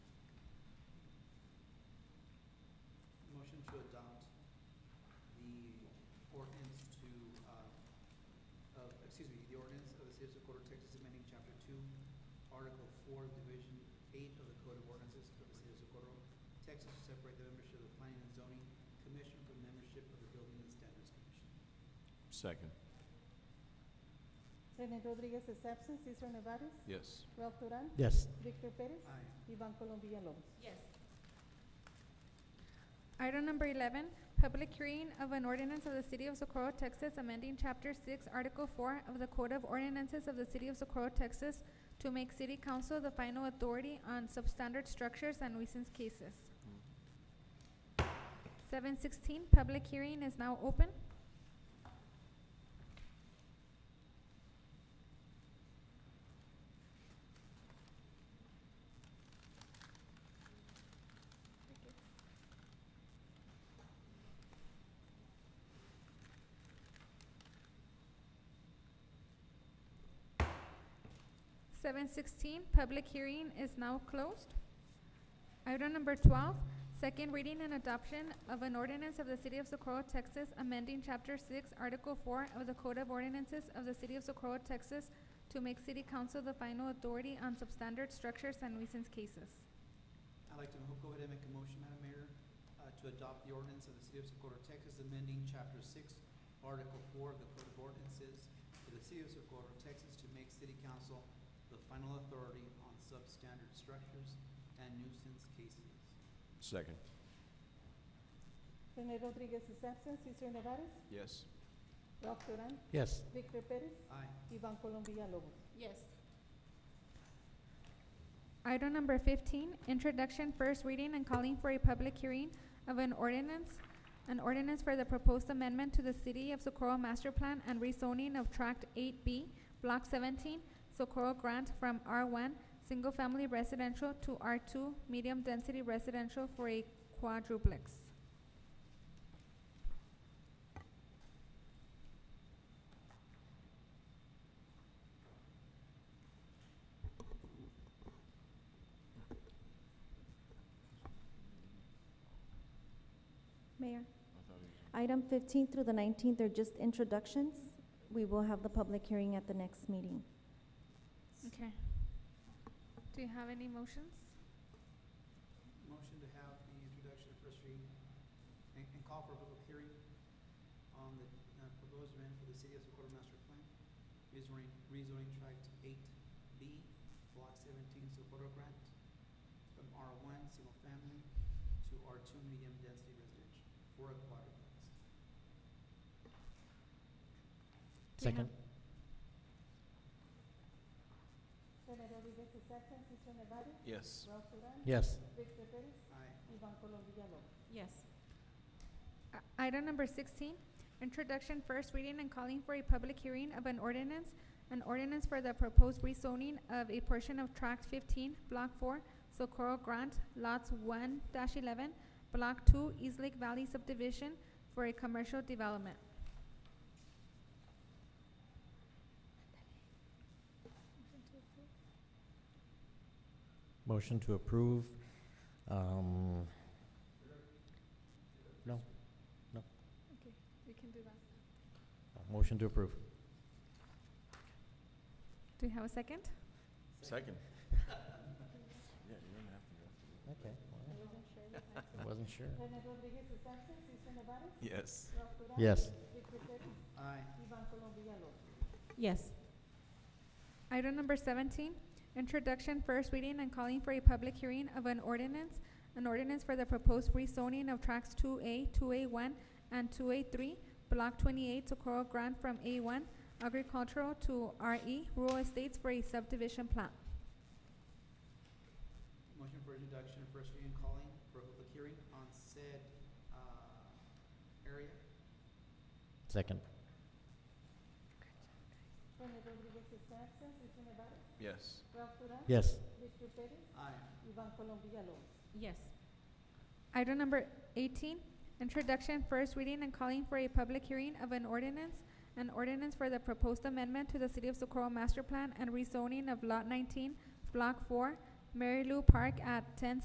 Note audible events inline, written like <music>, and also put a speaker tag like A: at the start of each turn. A: motion to adopt the ordinance to, uh, of, excuse me, the ordinance of the City of Socorro, Texas, amending Chapter Two, Article Four, Division Eight of the Code of Ordinances of the City of Socorro, Texas, to separate the membership of the Planning and Zoning Commission from membership of the Building and Standards Commission.
B: Second.
C: Rene Rodríguez is absent. Cesar Nevares.
B: Yes.
C: Ralph Duran.
D: yes,
C: Victor Pérez.
A: Aye.
C: Iván Colombia López.
E: Yes.
F: Item number 11, public hearing of an ordinance of the City of Socorro, Texas, amending Chapter 6, Article 4 of the Code of Ordinances of the City of Socorro, Texas, to make City Council the final authority on substandard structures and nuisance cases. 716, public hearing is now open. Seven sixteen, public hearing is now closed. Item number twelve, second reading and adoption of an ordinance of the City of Socorro, Texas, amending Chapter Six, Article Four of the Code of Ordinances of the City of Socorro, Texas, to make City Council the final authority on substandard structures and nuisance cases.
A: I'd like to mo- go ahead and make a motion, Madam Mayor, uh, to adopt the ordinance of the City of Socorro, Texas, amending Chapter Six, Article Four of the Code of Ordinances for the City of Socorro, Texas, to make City Council the final authority on substandard structures and nuisance cases.
B: Second.
C: Rene Rodríguez is absent. Cesar Nevares.
B: Yes.
C: Ralph Duran.
D: yes,
C: Victor Pérez.
A: Aye.
C: Iván Colombia López.
E: Yes.
F: Item number fifteen, introduction, first reading, and calling for a public hearing of an ordinance, an ordinance for the proposed amendment to the City of Socorro Master Plan and rezoning of Tract eight B, Block seventeen, Socorro Grant from R one, Single Family Residential to R two, Medium Density Residential for a quadruplex.
G: Mayor, item 15 through the 19th are just introductions. We will have the public hearing at the next meeting.
F: Okay. Do you have any motions?
A: Motion to have the introduction of first reading and, and call for a public hearing on the uh, proposed amendment for the City of Socorro Master Plan, rezoning, rezoning tract eight B, block seventeen, Socorro Grant, from R one, single family, to R two, medium density residential, for a quadruplex.
F: Do you have-
D: second,
C: Rene Rodríguez is absent. Cesar Nevares.
B: Yes.
C: Ralph Duran.
D: yes,
C: Victor Pérez.
A: Aye.
C: Iván Colombia López.
E: Yes.
F: I- Item number sixteen, introduction, first reading, and calling for a public hearing of an ordinance, an ordinance for the proposed rezoning of a portion of tract fifteen, block four, Socorro Grant, lots one eleven, block two, East Lake Valley subdivision for a commercial development.
D: motion to approve, um, no,
F: Okay, we can do that.
D: motion to approve,
F: Do you have a second?
B: Second. Yeah, you don't have to go.
D: okay, well, I wasn't sure, <laughs>
C: Rene Rodríguez is absent. Cesar Nevares.
B: Yes.
C: Ralph Duran.
D: yes,
C: Victor Pérez.
A: Aye.
C: Iván Colombia López.
E: Yes.
F: Item number seventeen, introduction, first reading, and calling for a public hearing of an ordinance, an ordinance for the proposed rezoning of tracts two A, two A one, and two A three, block twenty-eight, Socorro Grant from A one agricultural to RE, rural estates for a subdivision plan.
A: Motion for introduction of first reading, calling for a public hearing on said, uh, area.
D: second,
C: Rene Rodríguez is absent. Cesar Nevares.
B: Yes.
C: Ralph Duran.
D: yes,
C: Victor Pérez.
A: Aye.
C: Iván Colombia López.
E: Yes.
F: Item number eighteen, introduction, first reading, and calling for a public hearing of an ordinance, an ordinance for the proposed amendment to the City of Socorro Master Plan and rezoning of Lot nineteen, Block four, Mary Lou Park at ten